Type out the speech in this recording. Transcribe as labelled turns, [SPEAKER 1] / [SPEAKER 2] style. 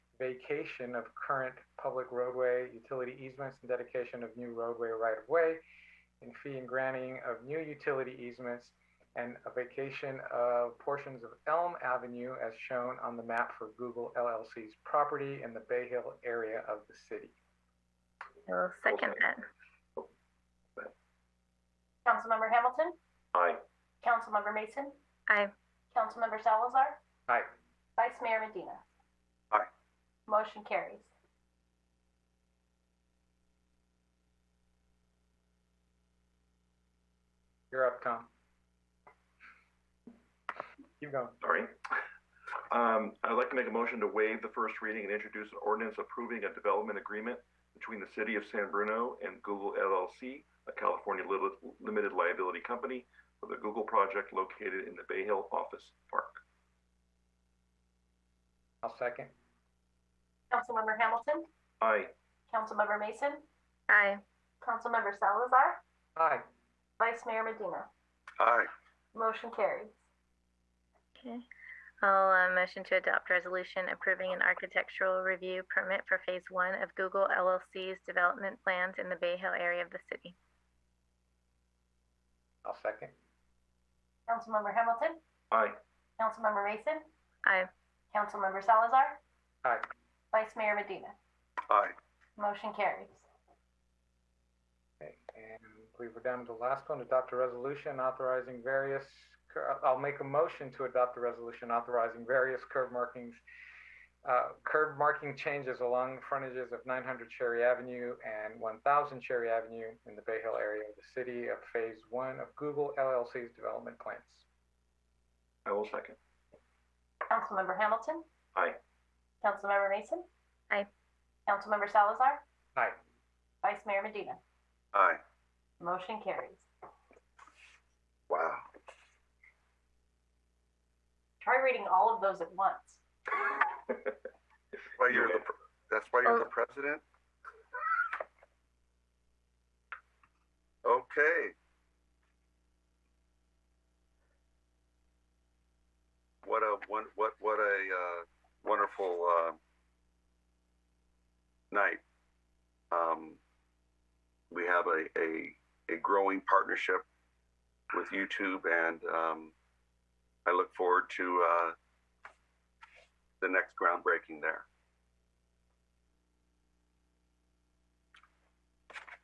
[SPEAKER 1] vacation of current public roadway utility easements and dedication of new roadway right-of-way, and fee and granting of new utility easements, and a vacation of portions of Elm Avenue as shown on the map for Google LLC's property in the Bay Hill area of the city.
[SPEAKER 2] I'll second that.
[SPEAKER 3] Councilmember Hamilton,
[SPEAKER 4] Aye.
[SPEAKER 3] Councilmember Mason,
[SPEAKER 2] Aye.
[SPEAKER 3] Councilmember Salazar,
[SPEAKER 1] Aye.
[SPEAKER 3] Vice Mayor Medina.
[SPEAKER 4] Aye.
[SPEAKER 3] Motion carries.
[SPEAKER 1] You're up, Tom. Keep going.
[SPEAKER 4] Sorry. Um, I'd like to make a motion to waive the first reading and introduce an ordinance approving a development agreement between the City of San Bruno and Google LLC, a California li- limited liability company for the Google project located in the Bay Hill Office Park.
[SPEAKER 1] I'll second.
[SPEAKER 3] Councilmember Hamilton,
[SPEAKER 4] Aye.
[SPEAKER 3] Councilmember Mason,
[SPEAKER 2] Aye.
[SPEAKER 3] Councilmember Salazar,
[SPEAKER 1] Aye.
[SPEAKER 3] Vice Mayor Medina.
[SPEAKER 4] Aye.
[SPEAKER 3] Motion carries.
[SPEAKER 2] Okay. I'll uh, motion to adopt resolution approving an architectural review permit for phase one of Google LLC's development plans in the Bay Hill area of the city.
[SPEAKER 1] I'll second.
[SPEAKER 3] Councilmember Hamilton,
[SPEAKER 4] Aye.
[SPEAKER 3] Councilmember Mason,
[SPEAKER 2] Aye.
[SPEAKER 3] Councilmember Salazar,
[SPEAKER 1] Aye.
[SPEAKER 3] Vice Mayor Medina.
[SPEAKER 4] Aye.
[SPEAKER 3] Motion carries.
[SPEAKER 1] Okay, and I believe we're down to the last one, adopt a resolution authorizing various, cur- I'll make a motion to adopt a resolution authorizing various curb markings, uh, curb marking changes along the frontages of 900 Cherry Avenue and 1000 Cherry Avenue in the Bay Hill area of the city of Phase 1 of Google LLC's development plans.
[SPEAKER 4] I will second.
[SPEAKER 3] Councilmember Hamilton.
[SPEAKER 4] Aye.
[SPEAKER 3] Councilmember Mason.
[SPEAKER 2] Aye.
[SPEAKER 3] Councilmember Salazar,
[SPEAKER 1] Aye.
[SPEAKER 3] Vice Mayor Medina.
[SPEAKER 4] Aye.
[SPEAKER 3] Motion carries.
[SPEAKER 4] Wow.
[SPEAKER 3] Try reading all of those at once.
[SPEAKER 5] Why you're the, pre- that's why you're the president? Okay. What a, one, what, what a, uh, wonderful, uh, night. Um, we have a, a, a growing partnership with YouTube and, um, I look forward to, uh, the next groundbreaking there.